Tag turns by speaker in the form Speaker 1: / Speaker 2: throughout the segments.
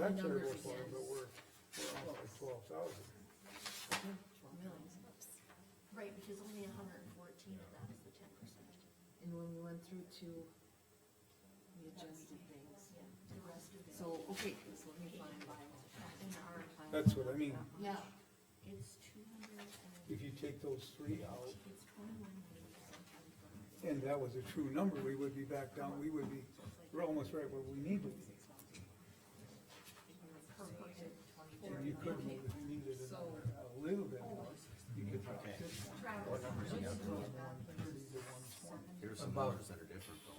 Speaker 1: That's their
Speaker 2: numbers
Speaker 1: worthwhile,
Speaker 2: again.
Speaker 1: but we're, we're on like twelve thousand.
Speaker 2: Really?
Speaker 3: Right, because only a hundred and fourteen of that is the ten percent.
Speaker 2: And when we went through to, we adjusted things.
Speaker 3: Yeah, the rest of it.
Speaker 2: So, okay, so let me find my,
Speaker 3: In our plan.
Speaker 1: That's what I mean.
Speaker 2: yeah,
Speaker 3: It's two hundred and,
Speaker 1: If you take those three out,
Speaker 3: it's twenty-one ninety something.
Speaker 1: and that was a true number, we would be back down, we would be, we're almost right where we need to be. And you could, if you needed a a little bit more, you could drop it to one twenty.
Speaker 4: Here's some numbers that are different though,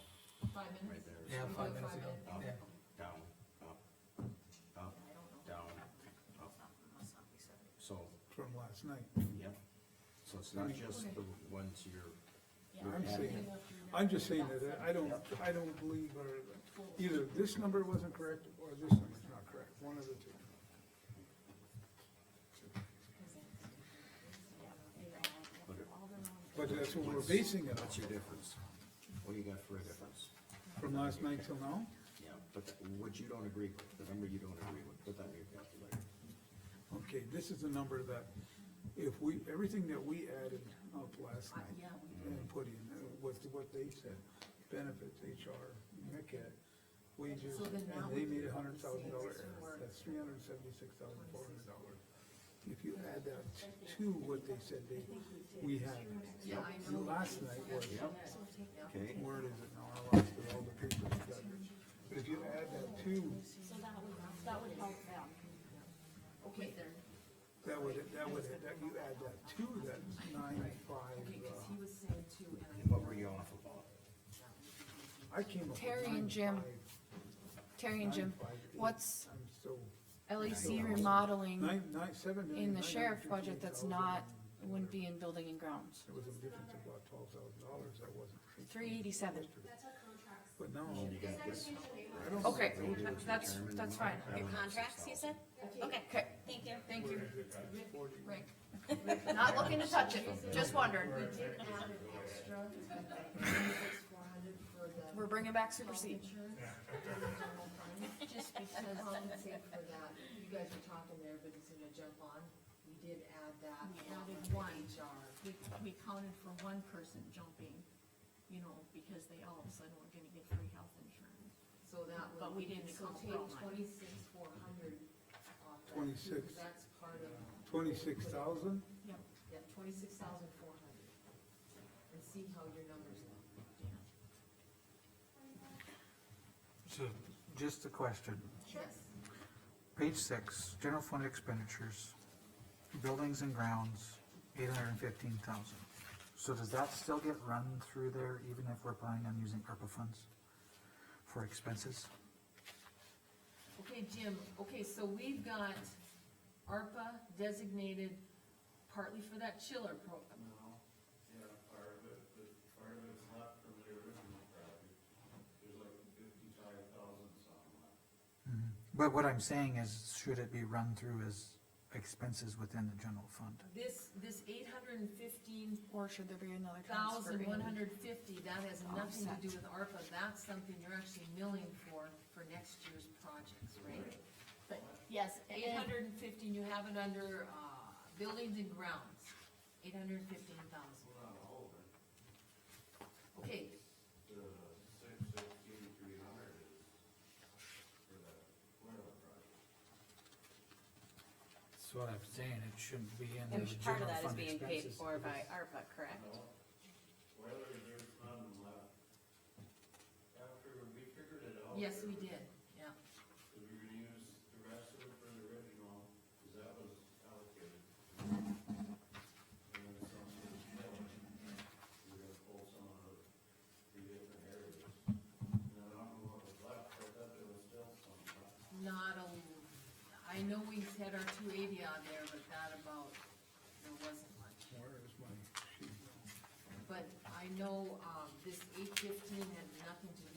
Speaker 2: Five minutes?
Speaker 4: right there.
Speaker 5: Yeah, five minutes ago,
Speaker 4: Up,
Speaker 5: yeah.
Speaker 4: down, up, up, down, up. So,
Speaker 1: From last night.
Speaker 4: yep, so it's not just the ones you're, you're
Speaker 1: I'm
Speaker 4: adding.
Speaker 1: saying, I'm just saying that I don't, I don't believe our, either this number wasn't correct or this number's not correct, one of the two.
Speaker 4: But it-
Speaker 1: But that's what we're basing it
Speaker 4: What's
Speaker 1: on,
Speaker 4: your difference? What do you got for a difference?
Speaker 1: from last night till now.
Speaker 4: Yeah, but that- what you don't agree with, the number you don't agree with, put that in your calculator.
Speaker 1: Okay, this is the number that, if we, everything that we added up last night and put in, uh, with what they said, benefits, HR, Mick had, wages,
Speaker 2: So then now
Speaker 1: and they
Speaker 2: we
Speaker 1: made a
Speaker 2: can
Speaker 1: hundred thousand dollar
Speaker 2: say it's
Speaker 1: error,
Speaker 2: for-
Speaker 1: that's three hundred and seventy-six thousand four hundred dollars. If you add that to what they said they, we had,
Speaker 2: Yeah, I know.
Speaker 1: last night was,
Speaker 4: Yep, okay,
Speaker 1: where is it now, I lost it, all the papers, I've got it. but if you add that to,
Speaker 3: So that would, that would help them.
Speaker 2: Okay, there,
Speaker 1: that would, that would, that you add that to, that's nine five,
Speaker 2: okay, cause
Speaker 1: uh,
Speaker 2: he was saying too,
Speaker 4: and
Speaker 2: and I.
Speaker 4: what were you off about?
Speaker 1: I came up with
Speaker 6: Terry and Jim.
Speaker 1: 9.5,
Speaker 6: Terry and Jim,
Speaker 1: 9.58.
Speaker 6: what's
Speaker 1: I'm so,
Speaker 6: LEC remodeling
Speaker 1: nine, nine, seven million,
Speaker 6: in the
Speaker 1: nine
Speaker 6: sheriff
Speaker 1: hundred
Speaker 6: budget
Speaker 1: fifty-eight
Speaker 6: that's
Speaker 1: thousand
Speaker 6: not,
Speaker 1: and
Speaker 6: wouldn't be in building and grounds?
Speaker 1: There was a difference of about twelve thousand dollars, that wasn't,
Speaker 6: Three eighty-seven,
Speaker 1: but now,
Speaker 4: Oh, You got this,
Speaker 1: I don't. know
Speaker 6: okay,
Speaker 1: what they did.
Speaker 6: that's, that's fine,
Speaker 4: Okay.
Speaker 7: Contracts, you said? Okay,
Speaker 6: okay,
Speaker 7: thank you.
Speaker 6: thank you,
Speaker 1: Is it at 40?
Speaker 6: Rick. Not looking to touch it, just wondering,
Speaker 2: We did add an extra, four hundred for the.
Speaker 6: we're bringing back supersede.
Speaker 2: Insurance, Just because, compensate for that, you guys were talking there, but he's gonna jump on, we did add that, added one HR.
Speaker 3: We, we counted for one person jumping, you know, because they all of a sudden were gonna get free health insurance.
Speaker 2: So that would.
Speaker 3: But we didn't
Speaker 2: so
Speaker 3: account
Speaker 2: take
Speaker 3: for one.
Speaker 2: twenty-six, four hundred off that.
Speaker 1: 26.
Speaker 2: because That's part of,
Speaker 1: Twenty-six thousand,
Speaker 3: Yep.
Speaker 2: yeah, twenty-six thousand four hundred. And see how your numbers look.
Speaker 5: So, just a question.
Speaker 2: Yes.
Speaker 5: Page six, general fund expenditures, buildings and grounds, eight hundred and fifteen thousand. So does that still get run through there even if we're planning on using ARPA funds for expenses?
Speaker 2: Okay, Jim, okay, so we've got ARPA designated partly for that chiller program.
Speaker 8: No, yeah, part of it, but part of it's left from the original project, there's like fifty-five thousand something left.
Speaker 5: But what I'm saying is, should it be run through as expenses within the general fund?
Speaker 2: This, this eight hundred and fifteen
Speaker 6: Or should there be another transfer?
Speaker 2: thousand
Speaker 6: in?
Speaker 2: one hundred fifty, that has nothing to do
Speaker 6: Offset.
Speaker 2: with ARPA, that's something you're actually milling for, for next year's projects, right?
Speaker 3: But, yes,
Speaker 2: Eight hundred and fifteen, you have it under, uh, buildings and grounds, eight hundred and fifteen thousand.
Speaker 8: Well, not all of it,
Speaker 2: Okay,
Speaker 8: the six sixteen three hundred is for the winter project.
Speaker 5: That's what I'm saying, it shouldn't be in
Speaker 7: And part of that is being paid for by ARPA, correct?
Speaker 8: Whether there's none left, after we figured it out.
Speaker 2: yes, we did, yeah.
Speaker 8: If you're gonna use the rest of it for the original, cause that was allocated. And then some was filled, you're gonna pull some out of the different areas. And I don't know what was left, but I thought there was still some left.
Speaker 2: Not a, I know we had our two eighty on there, but not about, there wasn't much.
Speaker 1: where is my sheet?
Speaker 2: But I know, um, this eight fifteen had nothing to